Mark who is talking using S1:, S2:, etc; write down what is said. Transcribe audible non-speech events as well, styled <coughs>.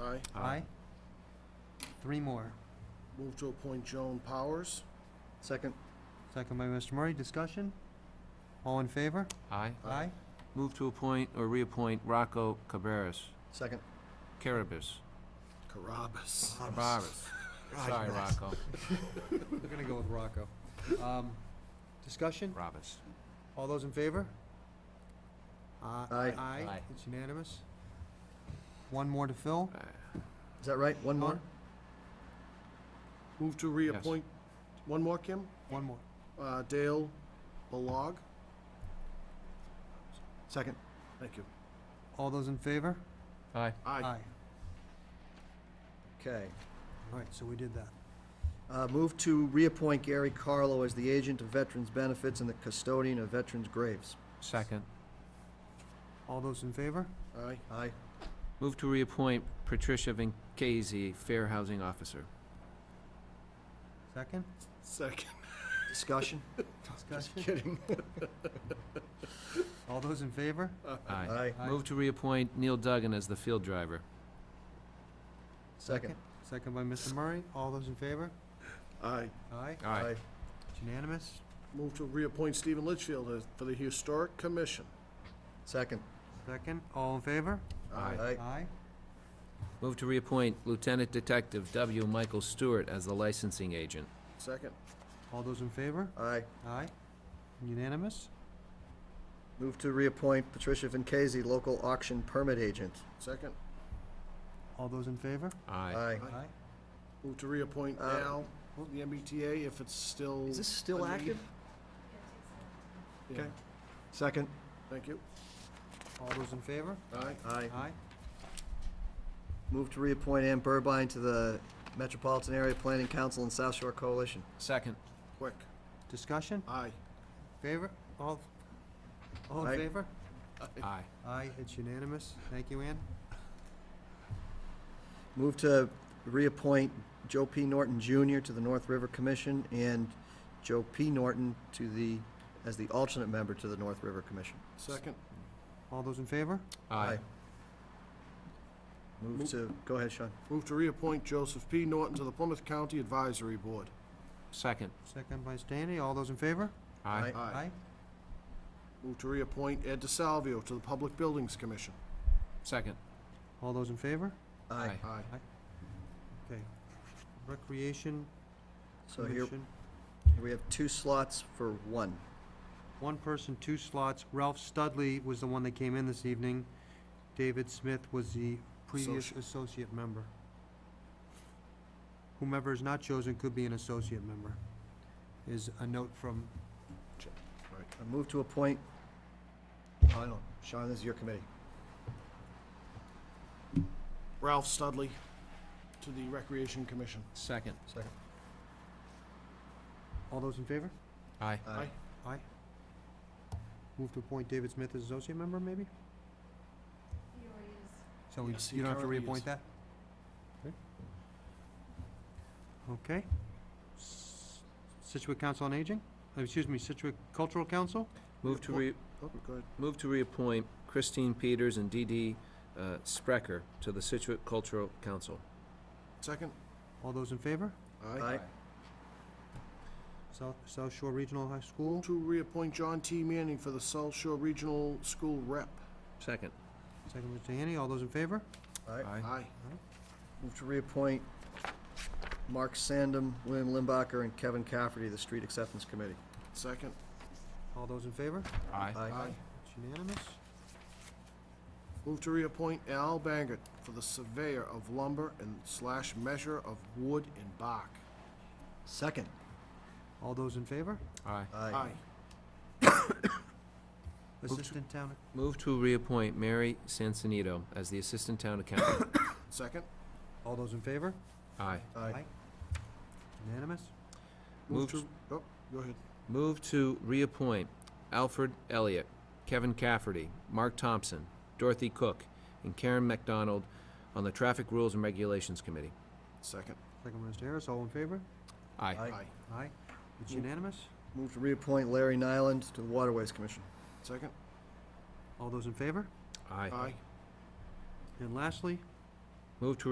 S1: Aye.
S2: Aye.
S3: Three more.
S1: Move to appoint Joan Powers.
S3: Second. Second by Mr. Murray. Discussion? All in favor?
S2: Aye.
S1: Aye.
S2: Move to appoint or reappoint Rocco Cabarrus,
S3: Second.
S2: Carabas,
S1: Carabas.
S2: Barbaras. <laughs> Sorry, Rocco,
S3: We're gonna go with Rocco. Um, Discussion?
S2: Robas.
S3: All those in favor? Uh,
S1: Aye.
S3: Aye.
S2: Aye.
S3: It's unanimous. One more to fill?
S2: Uh,
S3: Is that right? One more?
S1: Move to reappoint, one more, Kim?
S3: One more.
S1: Uh, Dale Balog.
S3: Second.
S1: Thank you.
S3: All those in favor?
S2: Aye.
S1: Aye.
S4: Okay.
S3: All right, so we did that.
S4: Uh, Move to reappoint Gary Carlo as the agent of Veterans Benefits and the custodian of veterans' graves.
S2: Second.
S3: All those in favor?
S1: Aye.
S4: Aye.
S2: Move to reappoint Patricia Vinkasey, Fair Housing <laughs> Officer.
S3: Second?
S1: Second.
S4: Discussion?
S3: Discussion?
S4: Kidding.
S3: <laughs> All those in favor?
S2: Aye.
S4: Aye.
S2: Move to reappoint Neil Duggan as the field driver.
S4: Second.
S3: Second by Mr. Murray. All those in favor?
S1: Aye.
S3: Aye.
S2: Aye.
S3: It's unanimous.
S1: Move to reappoint Stephen Litchfield as- for the Historic Commission.
S4: Second.
S3: Second. All in favor?
S2: Aye.
S4: Aye.
S3: Aye.
S2: Move to reappoint Lieutenant Detective W. Michael Stewart as the licensing agent.
S1: Second.
S3: All those in favor?
S4: Aye.
S3: Aye. Unanimous?
S4: Move to reappoint Patricia Vinkasey, local auction permit agent.
S1: Second.
S3: All those in favor?
S2: Aye.
S3: Aye.
S1: Move to reappoint
S4: Uh,
S1: Al, the MBTA, if it's still.
S4: Is this
S1: a
S4: still
S1: need.
S4: active?
S1: Yeah.
S4: Okay. Second.
S1: Thank you.
S3: All those in favor?
S1: Aye.
S4: Aye.
S3: Aye.
S4: Move to reappoint Ann Burbine to the Metropolitan Area Planning Council and South Shore Coalition.
S2: Second.
S1: Quick.
S3: Discussion?
S1: Aye.
S3: Favor? All, all
S4: Aye.
S3: in favor?
S2: Aye.
S3: Aye, it's unanimous. Thank you, Ann.
S4: Move to reappoint Joe P. Norton Jr. to the North River Commission and Joe P. Norton to the, as the alternate member to the North River Commission.
S1: Second.
S3: All those in favor?
S2: Aye.
S4: Move to, go ahead, Sean.
S1: Move to reappoint Joseph P. Norton to the Plymouth County Advisory Board.
S2: Second.
S3: Second by Stanley. All those in favor?
S2: Aye.
S1: Aye. Move to reappoint Ed DeSalvio to the Public Buildings Commission.
S2: Second.
S3: All those in favor?
S2: Aye.
S1: Aye.
S3: Okay. Recreation
S4: So here
S3: Commission,
S4: we have two slots for one.
S3: one person, two slots. Ralph Studley was the one that came in this evening. David Smith was the previous
S1: Associ-
S3: associate member. Whomever is not chosen could be an associate member, is a note from,
S4: I move to appoint, I don't, Sean, this is your committee.
S1: Ralph Studley to the Recreation Commission.
S2: Second.
S4: Second.
S3: all those in favor?
S2: Aye.
S1: Aye.
S3: Aye. Move to appoint David Smith as associate member, maybe? He already is.
S1: Yes,
S3: So
S1: he
S3: we, you don't have to
S1: currently
S3: reappoint
S1: is.
S3: that? Okay. S- Situate Council on Aging, Uh, excuse me, Situate Cultural Council,
S2: Move to re,
S1: Oh, go ahead.
S2: move to reappoint Christine Peters and D.D. uh, Sprecher to the Situate Cultural Council.
S1: Second?
S3: all those in favor?
S4: Aye.
S3: South, South Shore Regional High School,
S1: Move to reappoint John T. Manning for the South Shore Regional School Rep.
S2: Second.
S3: second by Mr. Haney, all those in favor?
S2: Aye.
S1: Aye.
S4: Move to reappoint Mark Sandem, William Limbacher, and Kevin Cafferty to the Street Acceptance Committee.
S1: Second?
S3: All those in favor?
S2: Aye.
S3: It's unanimous.
S1: Move to reappoint Al Bangert for the Surveyor of Lumber and slash Measure of Wood and Bark.
S4: Second.
S3: All those in favor?
S2: Aye.
S1: Aye.
S3: Assistant Town,
S2: Move to reappoint Mary Sansonito as the Assistant Town Accountant.
S1: Second?
S3: all those in favor?
S2: <coughs> Aye.
S4: Aye.
S3: Unanimous?
S2: Move
S1: to. Oh, go ahead.
S2: Move to reappoint Alfred Elliott, Kevin Cafferty, Mark Thompson, Dorothy Cook, and Karen McDonald on the Traffic Rules and Regulations Committee.
S1: Second?
S3: Second by Mr. Harris, all in favor?
S2: Aye.
S4: Aye.
S3: Aye. It's unanimous?
S4: Move to reappoint Larry Nyland to the Waterways Commission.
S1: Second?
S3: All those in favor?
S2: Aye.
S1: Aye.
S3: And lastly,
S2: Move to